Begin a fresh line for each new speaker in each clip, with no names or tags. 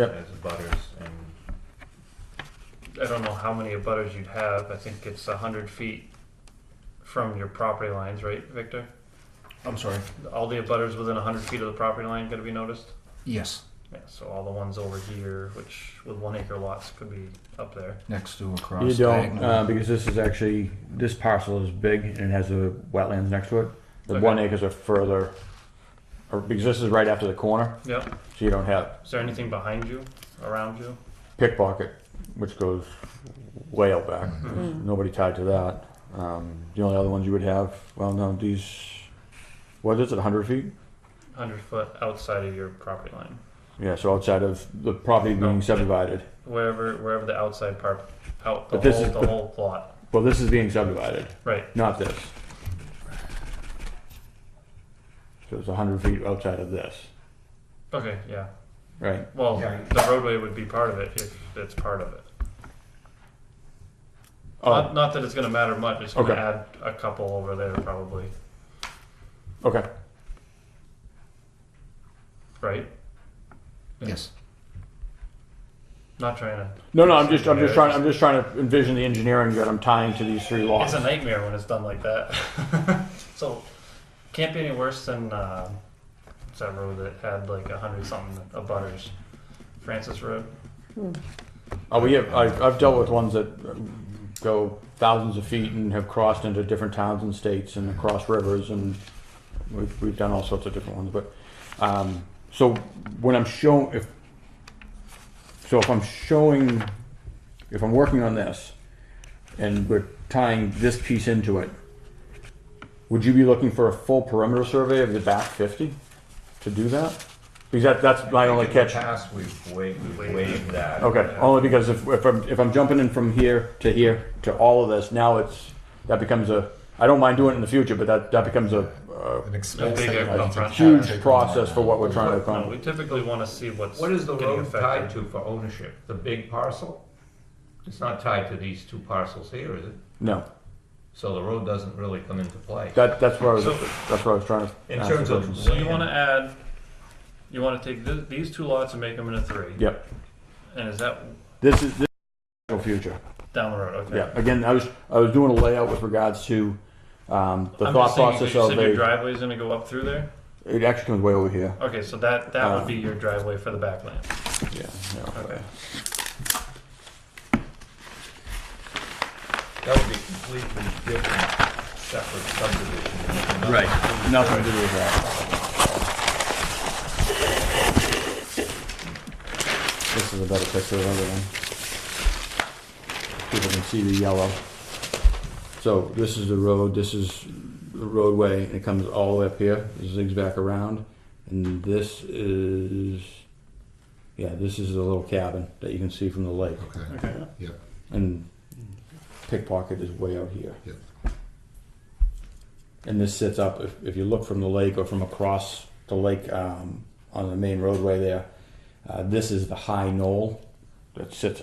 Yep.
as butters and
I don't know how many abutters you'd have. I think it's a hundred feet from your property lines, right, Victor?
I'm sorry.
All the abutters within a hundred feet of the property line gonna be noticed?
Yes,
Yeah, so all the ones over here, which with one acre lots could be up there.
next to across.
You don't,
diagonal.
uh, because this is actually, this parcel is big and it has the wetlands next to it. The
Okay.
one acres are further, or, because this is right after the corner,
Yep.
so you don't have
Is there anything behind you, around you?
pickpocket, which goes way out back. Nobody tied to that. Um, the only other ones you would have, well, no, these, what is it, hundred feet?
Hundred foot outside of your property line.
Yeah, so outside of the property
No.
being subdivided.
Wherever wherever the outside part out the
But this
whole
is-
the whole plot.
Well, this is being subdivided,
Right.
not this. So it's hundred feet outside of this,
Okay, yeah.
right?
Well
Yeah.
the roadway would be part of it if it's part of it. Not,
Oh,
not that it's gonna matter much, it's gonna
Okay.
add a couple over there probably,
okay.
right?
Yes.
Not trying to,
No, no, I'm just, I'm just trying, I'm just trying to envision the engineering that I'm tying to these three
it's
lots.
a nightmare when it's done like that. So, can't be any worse than, uh, what's that road that had like a hundred something of butters? Francis Road,
Oh, we have, I've, I've dealt with ones that um, go thousands of feet and have crossed into different towns and states and across rivers and we've, we've done all sorts of different ones, but, um, so when I'm showing, if, so if I'm showing, if I'm working on this and we're tying this piece into it, would you be looking for a full perimeter survey of the back fifty to do that? Because that, that's my only
In the
catch.
Past, we've waived, we've
Waived.
waived that.
Okay, only because if, if I'm, if I'm jumping in from here to here to all of this, now it's, that becomes a, I don't mind doing it in the future, but that, that becomes a, uh,
An expense
big
that you
upfront.
need to have
huge
taken
process
on.
for what we're trying to
no, we
accomplish.
typically wanna see what's
What is the
getting
road tied
affected.
to for ownership? The big parcel? It's not tied to these two parcels here, is it?
No,
So the road doesn't really come into play.
that, that's what I was,
So-
that's what I was trying to.
In
ask
terms
the
of
question.
So you wanna add, you wanna take th- these two lots and make them into three?
Yep,
And is that
this is, this is future,
down the road, okay?
yeah, again, I was, I was doing a layout with regards to, um, the
I'm
thought
just saying,
process
you
of
said your
a,
driveway's gonna go up through there?
it actually comes way over here,
Okay, so that, that
Uh,
would be your driveway for the backland.
yeah, yeah.
Okay.
That would be completely different, separate subdivision.
Nothing to do with that. This is a better picture of everything. People can see the yellow. So this is the road, this is the roadway, and it comes all the way up here, It zigs back around. And this is, yeah, this is the little cabin that you can see from the lake.
Okay,
Okay.
yep,
And pickpocket is way out here.
yep.
And this sits up, if, if you look from the lake or from across the lake um, on the main roadway there, uh, this is the high knoll that sits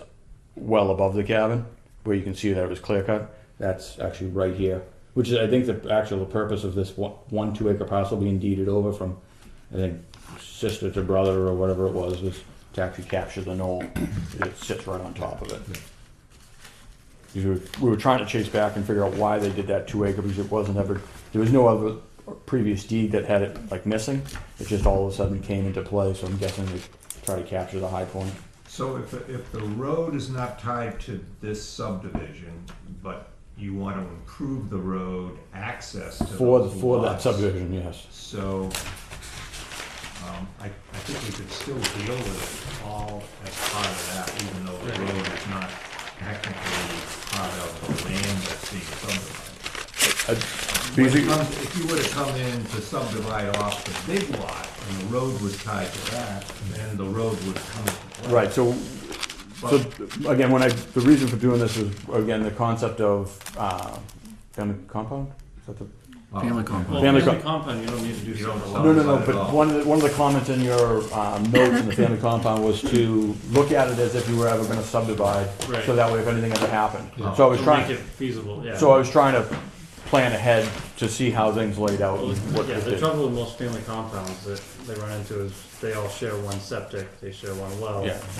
well above the cabin where you can see that it was clear cut. That's actually right here, which is, I think, the actual purpose of this one, one two acre parcel being deeded over from, I think, sister to brother or whatever it was, was to actually capture the knoll. it sits right on top of it. Because we were, we were trying to chase back and figure out why they did that two acre because it wasn't ever, there was no other previous deed that had it like missing. It just all of a sudden came into play, so I'm guessing they try to capture the high point.
So if, if the road is not tied to this subdivision, but you want to improve the road access to
For, the-
those
for that
lots,
subdivision, yes.
So, um, I, I think we could still deal with it all as part of that, even though the road is not technically part of the land that's being subdivided. When it
Because,
comes- If you were to come in to subdivide off the big lot and the road was tied to that, then the road would come into play.
right, so, so
But-
again, when I, the reason for doing this is, again, the concept of, uh, family compound? Is that the
Family compound.
Well,
Family
family
co-
compound, you don't need to do
You don't
something.
allow
No, no, no,
Not at
but
all.
one of, the, one of the comments in your um, notes in the family compound was to look at it as if you were ever gonna subdivide, so
Right.
that way if anything ever happened.
Yeah.
So I was
To Make
trying,
it feasible, yeah.
so I was trying to plan ahead to see how things laid out
Well,
and what
Yeah,
it
the
did.
trouble with most family compounds that they run into is they all share one septic, they share one well.
Yeah.